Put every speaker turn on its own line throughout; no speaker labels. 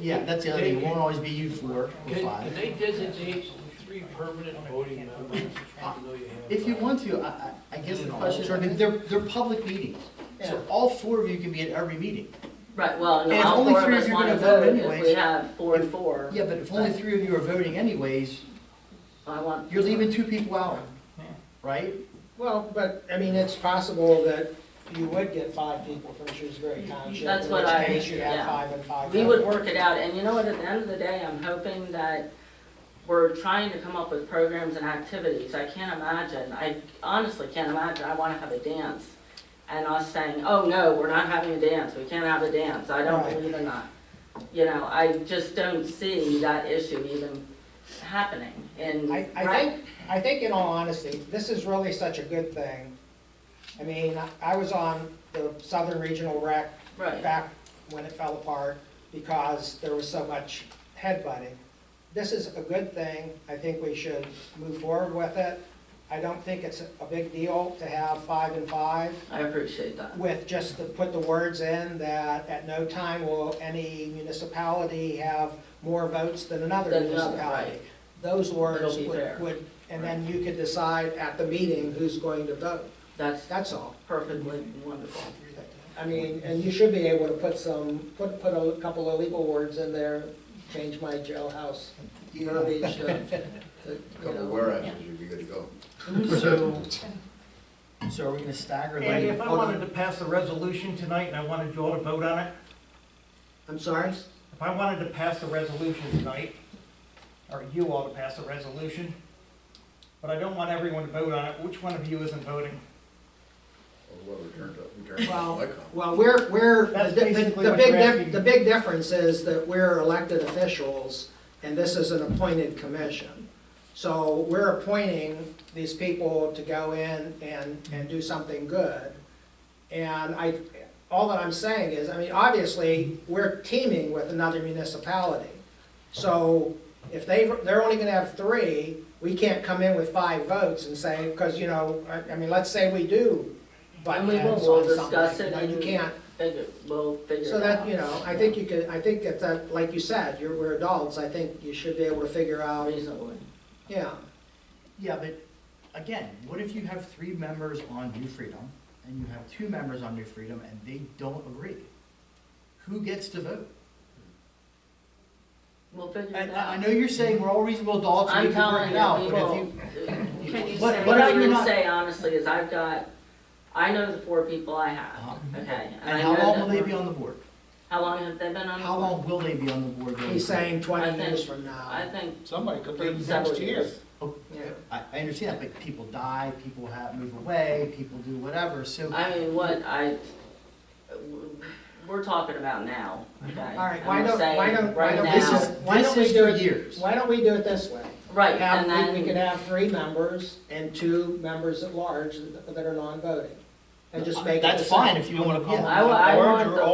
yeah, that's the other thing, it won't always be you four or
Can, can
five.
they designate three permanent voting members?
If you want to, I, I, I guess the question, I mean, they're, they're public meetings. So all four of you can be at every meeting.
Right, well,
And
no,
if
all
only
four of
three of
us
you are
wanna
gonna
Oh,
vote
vote, if
anyways,
we have four and
if-
four.
Yeah, but if only three of you are voting anyways,
I want.
you're leaving two people out, right?
Well, but, I mean, it's possible that you would get five people from Shrewsbury Township.
That's what I-
In which case you
yeah.
have five and five.
We would work it out, and you know what, at the end of the day, I'm hoping that we're trying to come up with programs and activities, I can't imagine, I honestly can't imagine, I wanna have a dance. And us saying, oh no, we're not having a dance, we can't have a dance, I don't
Right.
believe in that. You know, I just don't see that issue even happening in,
I, I
right?
think, I think in all honesty, this is really such a good thing. I mean, I- I was on the Southern Regional Rec
Right,
back when it fell apart because there was so much headbutting. This is a good thing. I think we should move forward with it. I don't think it's a big deal to have five and five
I appreciate that,
with just to put the words in that at no time will any municipality have more votes than another
Than another,
municipality.
right.
Those words
It'll be fair.
would, would, and then you could decide at the meeting who's going to vote.
that's
That's all.
perfectly wonderful.
I mean, and you should be able to put some, put, put a couple of legal words in there, change my jailhouse uh, verbiage to, to, you
Couple
know.
whereas's, you'd be good to go.
So, so are we gonna stagger like?
Andy, if I wanted to pass a resolution tonight and I wanted you all to vote on it,
I'm sorry?
if I wanted to pass a resolution tonight, or you all to pass a resolution, but I don't want everyone to vote on it, which one of you isn't voting?
Or whoever turned up, who turned up,
Well,
like, um,
well, we're, we're,
That's
the,
basically
the
what
big,
you're
dif-
asking.
the big difference is that we're elected officials, and this is an appointed commission. So we're appointing these people to go in and, and do something good. And I, all that I'm saying is, I mean, obviously, we're teaming with another municipality. So if they, they're only gonna have three, we can't come in with five votes and say, because, you know, I, I mean, let's say we do butt
And we will,
heads
we'll
on something,
discuss it
you know, you
and-
can't.
Figure, we'll figure it
So that,
out.
you know, I think you could, I think that, that, like you said, you're, we're adults, I think you should be able to figure out,
Reasonably.
yeah.
Yeah, but again, what if you have three members on New Freedom and you have two members on New Freedom and they don't agree? Who gets to vote?
We'll figure
I,
it
I I
out.
know you're saying we're all reasonable adults and
I'm
we can work
telling
it
you, uh,
out,
we
but if
will.
you,
Can you
What-
say,
what
What
if
I'm
you're
gonna
not-
say honestly is I've got, I know the four people I have,
Uh-huh.
okay? I
and how
know
long will
that
they be
we're-
on the board?
How long have they been on? the
How
board?
long will they be on the board? going
He's
forward?
saying
Mm-hmm. I
twenty
think-
years from
I
now.
think
Somebody could be
several
next year.
years.
Yeah.
I, I understand that, but people die, people have, move away, people do whatever, so.
I mean, what I, we're talking about now, okay?
All right, why don't, why don't, why
Right
don't,
This
now,
is-
we- why
this
don't we
is
do
for
it?
years.
Why don't we do it this way?
right, and
Have, we- we could
then,
have three members and two members at large that that are non-voting, and just make it.
That's
the same.
fine if you wanna call them.
I, wa- I
Large
want
or
the four,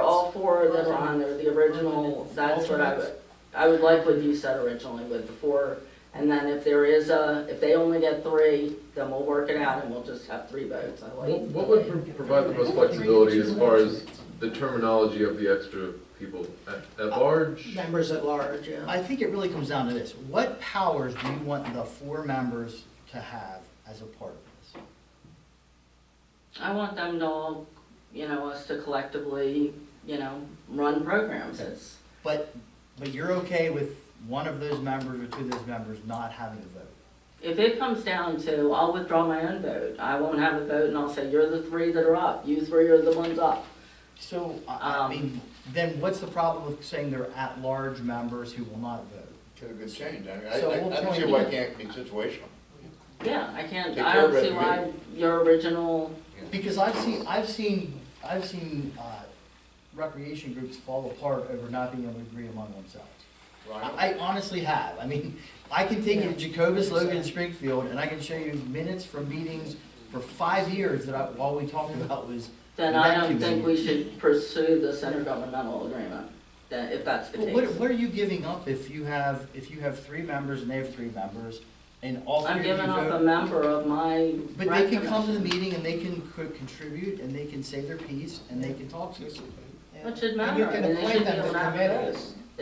alternates?
all four that are on there, the original,
Alternates.
that's what I would,
Alternates.
I would like what you said originally with the four. And then if there is a, if they only get three, then we'll work it out and we'll just have three votes, I like.
What what would pro- provide the most flexibility as far as the terminology of the extra people? At at large?
Members at large, yeah.
I think it really comes down to this. What powers do you want the four members to have as a part of this?
I want them to all, you know, us to collectively, you know, run programs, it's,
But, but you're okay with one of those members or two of those members not having a vote?
If it comes down to, I'll withdraw my own vote, I won't have a vote, and I'll say, you're the three that are up, you three are the ones up.
So, I, I
Um,
mean, then what's the problem with saying they're at-large members who will not vote?
Could have been changed, I mean, I,
So
I-
we'll
I don't see
point-
why it can't be situational.
Yeah, I can't,
Take
I
care of
don't see
it,
why your original,
Because I've seen, I've seen, I've seen, uh, recreation groups fall apart over not being able to agree among themselves.
Right?
I I honestly have. I mean, I can take you to Jacobus, Logan, and Springfield, and I can show you minutes from meetings for five years that I, all we talked about was,
then I
That
don't
gives
think
you-
we should pursue this intergovernmental agreement, that, if that's the
well, what,
case.
what are you giving up if you have, if you have three members and they have three members, and all
I'm
three of you
giving up a
vote?
member of my
But they can come to the
recommendation,
meeting and they can co- contribute, and they can say their piece, and they can talk to you.
Which should
And you
matter, I
can
mean, they should
appoint
be
them
able
to
to have a vote.
committees.